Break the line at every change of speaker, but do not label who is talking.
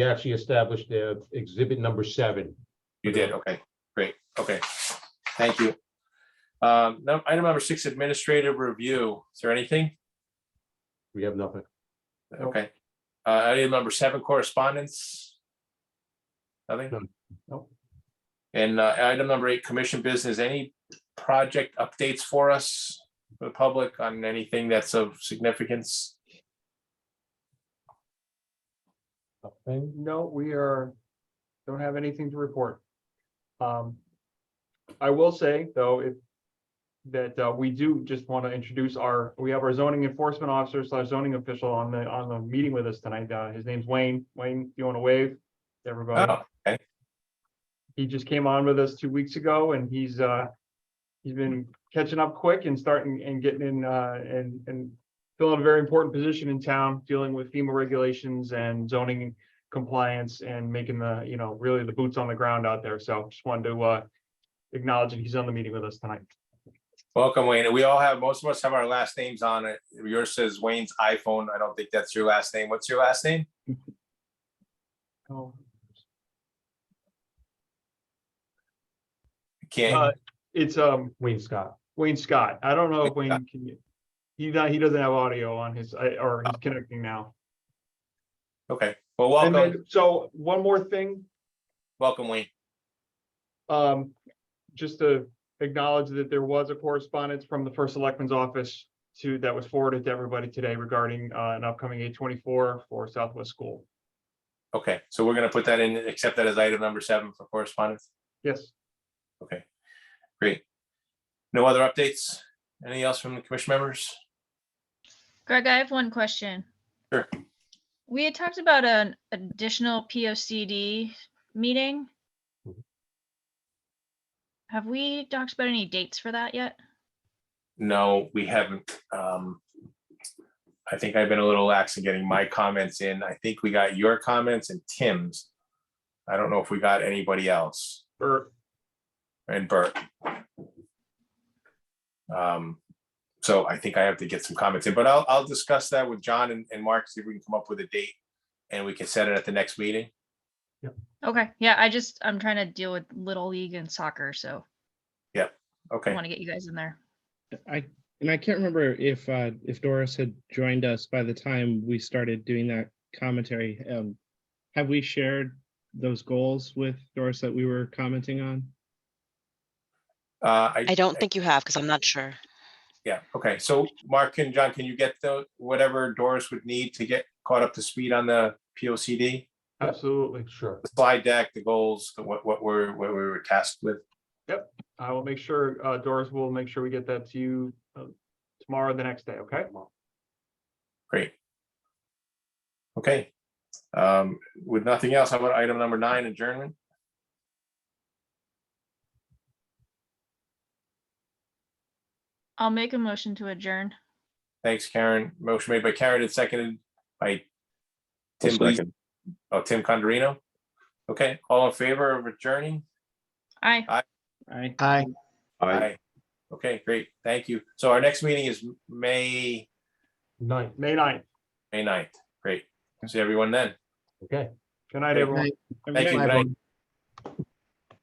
we actually established uh, exhibit number seven.
You did, okay, great, okay, thank you. Um, num- item number six, administrative review, is there anything?
We have nothing. Nope.
Okay, uh, item number seven, correspondence? Nothing?
None. Nope.
And, uh, item number eight, commission business, any project updates for us, for the public, on anything that's of significance?
Nothing.
No, we are, don't have anything to report. Um, I will say, though, if that uh, we do just want to introduce our, we have our zoning enforcement officer slash zoning official on the, on the meeting with us tonight. Uh, his name's Wayne. Wayne, do you want to wave? to
Uh,
Everybody,
Oh,
he just came on with us two weeks ago and he's, uh, he's been catching up quick and starting and getting in, uh, and, and filling a very important position in town, dealing with FEMA regulations and zoning compliance and making the, you know, really the boots on the ground out there. So just wanted to, uh, acknowledge that he's on the meeting with us tonight.
Welcome, Wayne, and we all have, most of us have our last names on it, yours says Wayne's iPhone, I don't think that's your last name, what's your last name?
Oh, Uh,
Uh,
Can't,
It's, um,
Wayne Scott.
Wayne Scott. I don't know if Wayne can, he, not- he doesn't have audio on his, I- or he's connecting now.
okay, well,
And
welcome,
then, so one more thing,
welcome, Wayne.
Um, just to acknowledge that there was a correspondence from the first selectman's office to, that was forwarded to everybody today regarding, uh, an upcoming eight twenty-four for Southwest School.
Okay, so we're gonna put that in, accept that as item number seven for correspondence.
Yes,
Okay, great. No other updates? Anything else from the commission members?
Greg, I have one question.
Sure.
We had talked about an additional P O C D meeting.
Mm-hmm.
Mhm.
Have we talked about any dates for that yet?
No, we haven't. Um, I think I've been a little lax in getting my comments in. I think we got your comments and Tim's. I don't know if we got anybody else
or
and Bert. Um, so I think I have to get some comments in, but I'll, I'll discuss that with John and, and Mark, see if we can come up with a date. And we can set it at the next meeting.
Okay, yeah, I just, I'm trying to deal with Little League and soccer, so I
Okay.
want to get you guys in there.
I, and I can't remember if, uh, if Doris had joined us by the time we started doing that commentary. Um, have we shared those goals with Doris that we were commenting on?
Uh,
I don't think you have, because I'm not sure.
Yeah, okay, so Mark and John, can you get the, whatever Doris would need to get caught up to speed on the P O C D?
absolutely.
Sure.
The slide deck, the goals, the what, what we're, what we were tasked with.
I will make sure, uh, Doris will make sure we get that to you uh, tomorrow, or the next day, okay?
Great. Okay. Um, with nothing else, how about item number nine, adjournment?
I'll make a motion to adjourn.
Thanks, Karen. Motion made by Karen and seconded by Tim, Blees-
second.
oh, Tim Condorino. Okay, all in favor of adjourning?
Aye.
I,
Hi.
Aye.
Aye. Okay, great, thank you. So our next meeting is May,
Nine.
May ninth.
May 9th. Great. See everyone then.
Okay.
Good night,
Good
everyone.
Thank you. Good night.